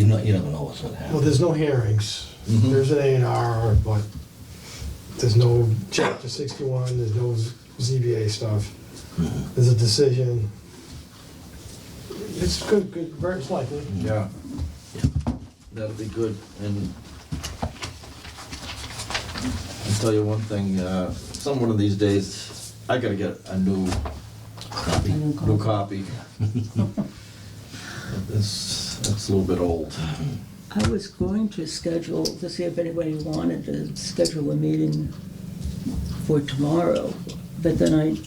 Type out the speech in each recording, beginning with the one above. know, you never know what's gonna happen. Well, there's no hearings. Mhm. Mm-hmm. There's an A and R, but there's no chapter sixty-one, there's no ZBA stuff. Mm-hmm. There's a decision. It's good, good, very likely. Yeah. That'll be good, and I'll tell you one thing, uh, some one of these days, I gotta get a new, Copy. new copy. This, that's a little bit old. I was going to schedule, to see if anybody wanted to schedule a meeting for tomorrow, but then I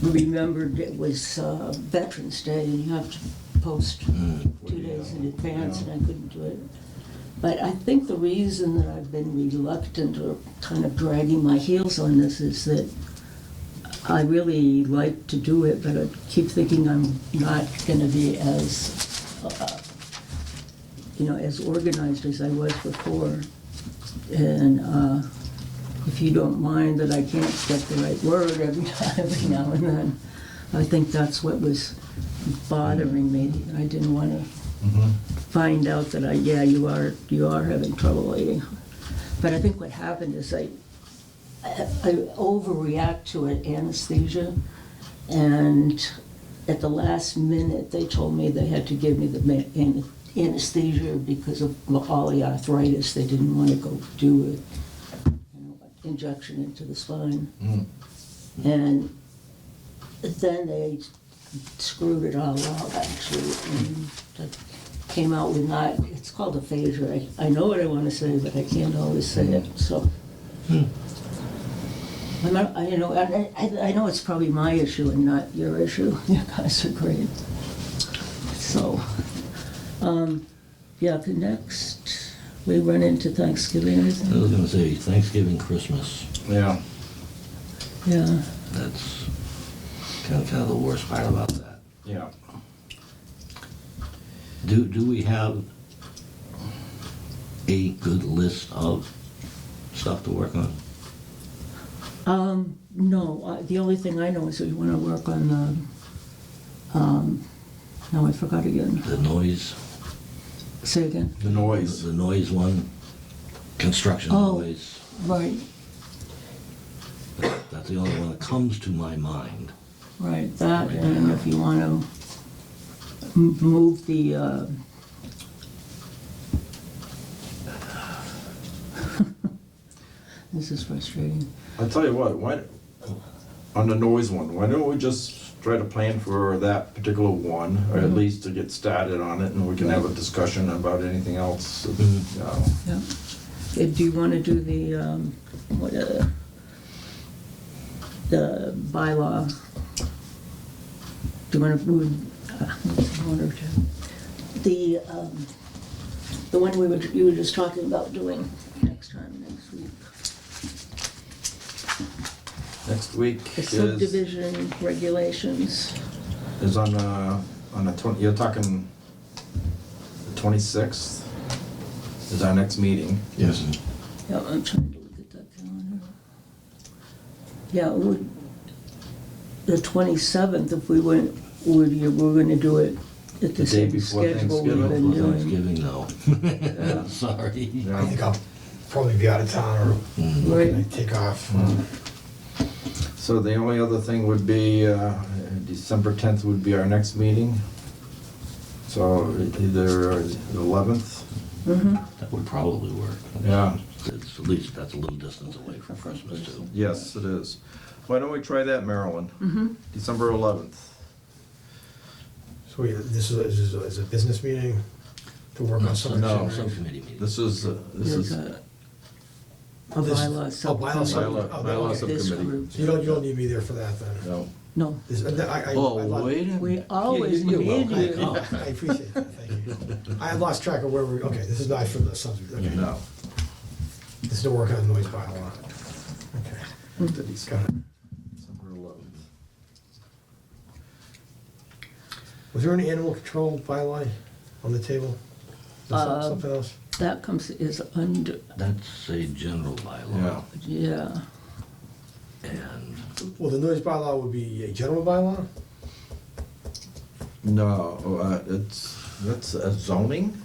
remembered it was uh, Veterans Day and you have to post two days in advance and I couldn't do it. But I think the reason that I've been reluctant or kind of dragging my heels on this is that I really like to do it, but I keep thinking I'm not gonna be as uh, you know, as organized as I was before. And uh, if you don't mind that I can't get the right word every time, every now and then, I think that's what was bothering me. I didn't want to find out that I, yeah, you are, you are having trouble eating. But I think what happened is I, I overreact to it anesthesia, and at the last minute, they told me they had to give me the ma- an- anesthesia because of all the arthritis, they didn't want to go do it, you know, injection into the spine. Mm. And then they screwed it all up, actually, and that came out with not, it's called aphasia. I, I know what I want to say, but I can't always say it, so. I'm not, I, you know, I, I, I know it's probably my issue and not your issue. You guys are great. So, um, yeah, the next, we run into Thanksgiving, I isn't it? was gonna say Thanksgiving, Christmas, Yeah. Yeah. that's kind of, kind of the worst part about that. Yeah. Do, do we have a good list of stuff to work on? Um, no, I- the only thing I know is that we want to work on the, um, no, I forgot again. The noise, Say again. The noise. the noise one, construction Oh. noise. Right, That's the only one that comes to my mind. right, that, and if you want to move the, uh, this is frustrating. I'll tell you what, why, on the noise one, why don't we just try to plan for that particular one, or at least to get started on it, and we can have a discussion about anything else, you know. Yeah. Uh, Do you want to do the, um, what, uh, the bylaw? Do you want to move, uh, one or two? The, um, the one we were, you were just talking about doing next time, next week. Next week The is, subdivision regulations. is on, uh, on the twenty, you're talking the twenty-sixth is our next meeting. Yes. Yeah, I'm trying to look at that calendar. Yeah, it would, the twenty-seventh, if we went, would you, we're gonna do it at The the day same before schedule we've Thanksgiving. been For doing. Thanksgiving, though. Sorry. Yeah. I think I'll probably be out of town Mm. or Right, I take off. Mm-hmm. So the only other thing would be, uh, December tenth would be our next meeting. So e-, either the eleventh, mhm, That would probably work. yeah. It's at least, that's a little distance away from Christmas, too. Yes, it is. Why don't we try that, Marilyn? mhm. December 11th. So we, this is, a- this is a- is a business meeting to work on something. No. Subcommittee meeting. This is, uh, this There's is, a, a This- bylaw oh, bylaw subcommittee. Bylaw- oh, bylaw okay. This subcommittee. group, So you don't, you don't need me there for that then? no. no, This- and I- I- I Oh, like- wait a minute. We always Yeah, you're need welcome. you. I I appreciate that, thank you. I had lost track of where we, okay, this is not from the subject, okay. No. This is to work on the noise bylaw. Okay. Got it. December 11th. Was there an animal control bylaw on the table? Is that Uh, Something else? that comes, is under, That's a general bylaw. Yeah. yeah, And Well, the noise bylaw would be a general bylaw? No, uh, it's, that's a zoning?